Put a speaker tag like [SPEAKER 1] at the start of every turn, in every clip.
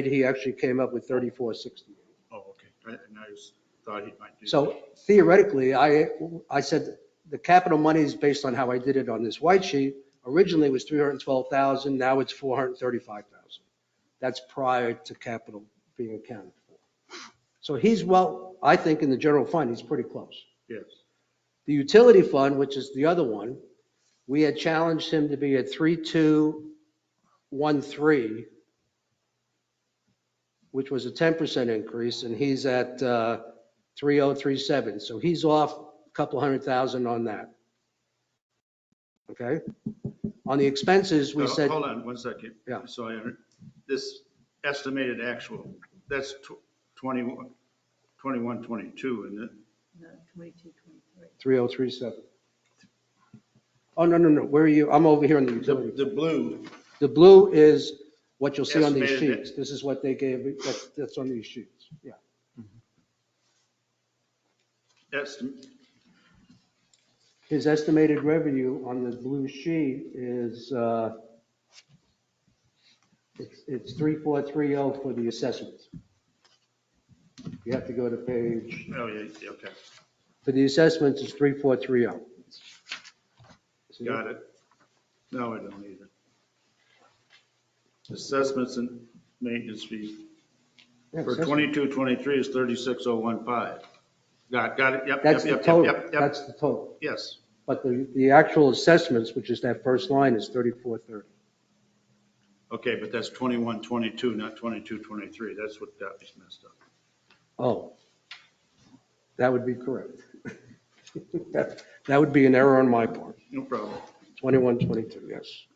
[SPEAKER 1] he actually came up with 3460.
[SPEAKER 2] Oh, okay. I, and I was- thought he might do.
[SPEAKER 1] So theoretically, I, I said the capital money is based on how I did it on this white sheet. Originally it was 312,000, now it's 435,000. That's prior to capital being accounted for. So he's well, I think in the general fund, he's pretty close.
[SPEAKER 2] Yes,
[SPEAKER 1] The utility fund, which is the other one, we had challenged him to be at 3213, which was a 10% increase, and he's at uh, 3037. So he's off a couple hundred thousand on that. Okay? On the expenses, we
[SPEAKER 2] So,
[SPEAKER 1] said,
[SPEAKER 2] Uh, Hold on one second.
[SPEAKER 1] Yeah.
[SPEAKER 2] So I, under- this estimated actual, that's tw- 21, 21, 22, and then,
[SPEAKER 3] No, 22, 23.
[SPEAKER 1] 3037. Oh, no, no, no, where are you? I'm over here on the utility.
[SPEAKER 2] the, the blue,
[SPEAKER 1] The blue is what you'll see on these
[SPEAKER 2] Estimated it.
[SPEAKER 1] sheets. This is what they gave, me. that's, that's on these sheets, yeah.
[SPEAKER 2] that's,
[SPEAKER 1] His estimated revenue on the blue sheet is, uh, it's, it's 3430 for the assessments. You have to go to page,
[SPEAKER 2] oh, yeah, yeah, okay,
[SPEAKER 1] for the assessments, it's 3430. oh. See?
[SPEAKER 2] got it. No, I don't need it. Assessments and maintenance fees
[SPEAKER 1] Yeah,
[SPEAKER 2] for
[SPEAKER 1] assessment.
[SPEAKER 2] 22, 23 is 36015. Got, got it, yep, yep,
[SPEAKER 1] That's the
[SPEAKER 2] yep, yep,
[SPEAKER 1] total,
[SPEAKER 2] yep, yep,
[SPEAKER 1] that's the total.
[SPEAKER 2] yes.
[SPEAKER 1] But the, the actual assessments, which is that first line, is 3430.
[SPEAKER 2] Okay, but that's 21, 22, not 22, 23. That's what got me messed up.
[SPEAKER 1] Oh, that would be correct. That, that would be an error on my part.
[SPEAKER 2] No problem.
[SPEAKER 1] 21, 22, yes.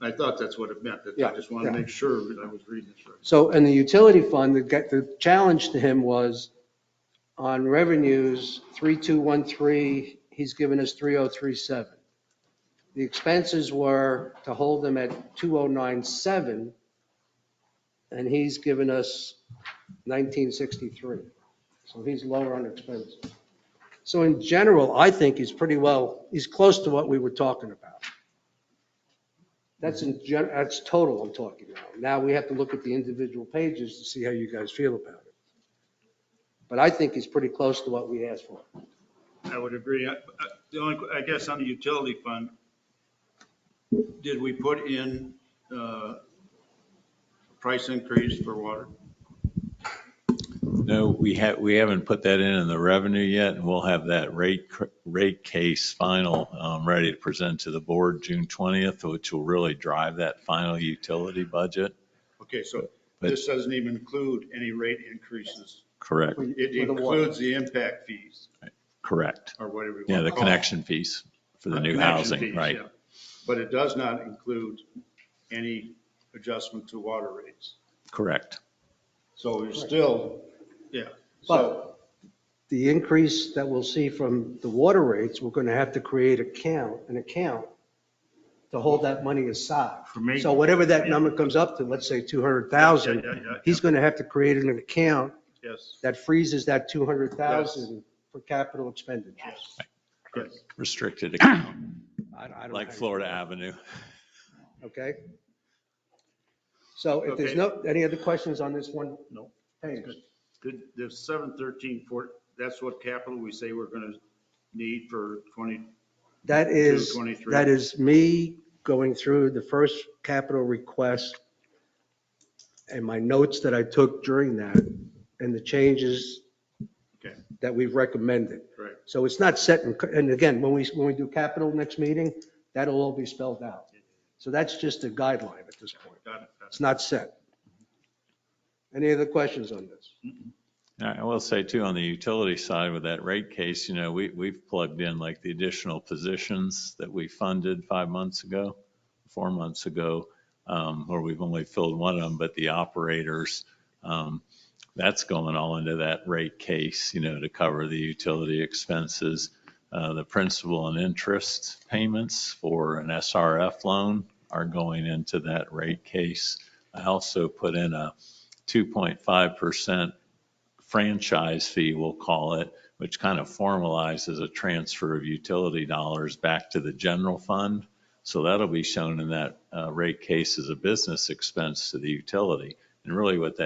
[SPEAKER 2] I thought that's what it meant. That's-
[SPEAKER 1] Yeah,
[SPEAKER 2] I just wanted to
[SPEAKER 1] yeah.
[SPEAKER 2] make sure that I was reading this right.
[SPEAKER 1] So, and the utility fund, the, get- the challenge to him was on revenues, 3213, he's given us 3037. The expenses were to hold them at 2097, and he's given us 1963. So he's lower on expenses. So in general, I think he's pretty well, he's close to what we were talking about. That's in gen, that's total I'm talking about. Now we have to look at the individual pages to see how you guys feel about it. But I think he's pretty close to what we asked for.
[SPEAKER 2] I would agree. I- I- The only, I guess on the utility fund, did we put in uh, price increase for water?
[SPEAKER 4] No, we have, we haven't put that in in the revenue yet, and we'll have that rate, cr- rate case final um, ready to present to the board June 20th, which will really drive that final utility budget.
[SPEAKER 2] Okay, so
[SPEAKER 4] But-
[SPEAKER 2] this doesn't even include any rate increases.
[SPEAKER 4] Correct,
[SPEAKER 2] It
[SPEAKER 1] For the water.
[SPEAKER 2] includes the impact fees
[SPEAKER 4] correct.
[SPEAKER 2] or whatever. you
[SPEAKER 4] Yeah,
[SPEAKER 2] wanna
[SPEAKER 4] the
[SPEAKER 2] call it.
[SPEAKER 4] connection fees for the new
[SPEAKER 2] Connection
[SPEAKER 4] housing,
[SPEAKER 2] fees,
[SPEAKER 4] right?
[SPEAKER 2] yeah. But it does not include any adjustment to water rates.
[SPEAKER 4] Correct.
[SPEAKER 2] So you're still, yeah. So
[SPEAKER 1] But the increase that we'll see from the water rates, we're going to have to create account, an account to hold that money aside.
[SPEAKER 2] For me-
[SPEAKER 1] So whatever that number comes up to, let's say 200,000,
[SPEAKER 2] Yeah, yeah, yeah, yeah.
[SPEAKER 1] he's going to have to create an account
[SPEAKER 2] Yes,
[SPEAKER 1] that freezes that 200,000 for capital expenditures.
[SPEAKER 2] yes, yes.
[SPEAKER 4] Restricted account,
[SPEAKER 1] I- I don't know
[SPEAKER 4] like
[SPEAKER 1] how you-
[SPEAKER 4] Florida Avenue.
[SPEAKER 1] Okay? So if there's
[SPEAKER 2] Okay.
[SPEAKER 1] no, any other questions on this one?
[SPEAKER 2] No.
[SPEAKER 1] Page.
[SPEAKER 2] Good. Did the seven thirteen four, that's what capital we say we're gonna need for twenty,
[SPEAKER 1] That is,
[SPEAKER 2] 223.
[SPEAKER 1] that is me going through the first capital request and my notes that I took during that and the changes
[SPEAKER 2] Okay.
[SPEAKER 1] that we've recommended.
[SPEAKER 2] Correct.
[SPEAKER 1] So it's not set, in- and again, when we, when we do capital next meeting, that'll all be spelled out. So that's just a guideline at this point.
[SPEAKER 2] got it, got
[SPEAKER 1] It's
[SPEAKER 2] it.
[SPEAKER 1] not set. Any other questions on this?
[SPEAKER 4] And I will say too, on the utility side with that rate case, you know, we, we've plugged in like the additional positions that we funded five months ago, four months ago, um, where we've only filled one of them, but the operators, um, that's going all into that rate case, you know, to cover the utility expenses, uh, the principal and interest payments for an SRF loan are going into that rate case. I also put in a 2.5% franchise fee, we'll call it, which kind of formalizes a transfer of utility dollars back to the general fund. So that'll be shown in that uh, rate case as a business expense to the utility. And really what that